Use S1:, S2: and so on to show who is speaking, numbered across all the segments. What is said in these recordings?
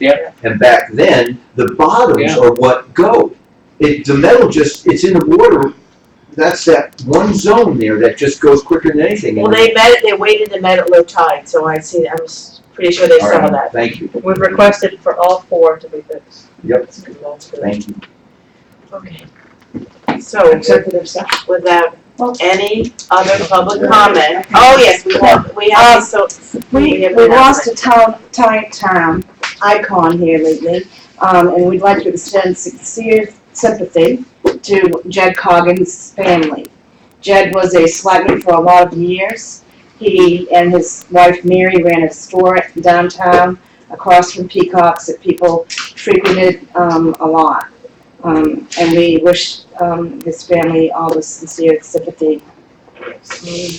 S1: Yeah.
S2: And back then, the bottoms
S1: Yeah.
S2: are what go. It, the metal just, it's in the water. That's that one zone there that just goes quicker than anything.
S3: Well, they met, they waited and met at low tide, so I see, I'm s- pretty sure they
S2: All
S3: saw
S2: right,
S3: that.
S2: Thank you.
S3: We've requested for all four to be fixed.
S2: Yep.
S3: That's good.
S2: Thank you.
S3: Okay. So,
S4: Executive session.
S3: without any other public comment,
S4: Okay.
S3: oh, yes, we have, we
S1: Um,
S3: have, so, We
S4: We,
S3: have
S4: we
S3: an
S4: lost a town, town, town icon here lately, um, and we'd like to extend sincere sympathy to Jed Coggin's family. Jed was a selectman for a lot of years. He and his wife Mary ran a store downtown across from Peacock's that people frequented, um, a lot. Um, and we wish, um, his family all the sincere sympathy.
S3: thank you.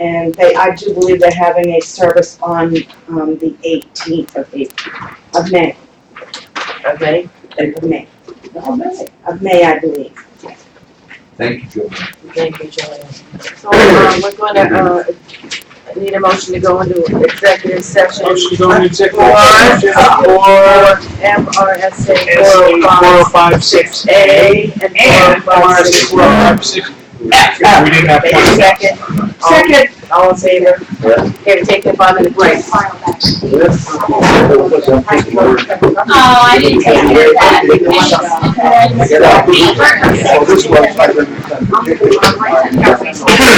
S4: And they, I do believe they're having a service on, um, the eighteenth of April, of May,
S3: Okay,
S4: of May. Of May, I believe.
S2: Thank you, Joe.
S3: thank you, Joanne. So, um, we're gonna, uh, I need a motion to go into executive session.
S1: Motion to go into
S3: For,
S1: executive session
S3: for MRSA four oh five six A and four oh five six
S1: Four
S3: one.
S1: five six. If we didn't have
S3: Take a
S1: time.
S3: second,
S4: Second.
S3: all in favor?
S2: Yeah.
S3: Here, take the five minute break.
S5: Oh, I didn't take care of that. It's just-
S2: Well, this was-
S5: Right.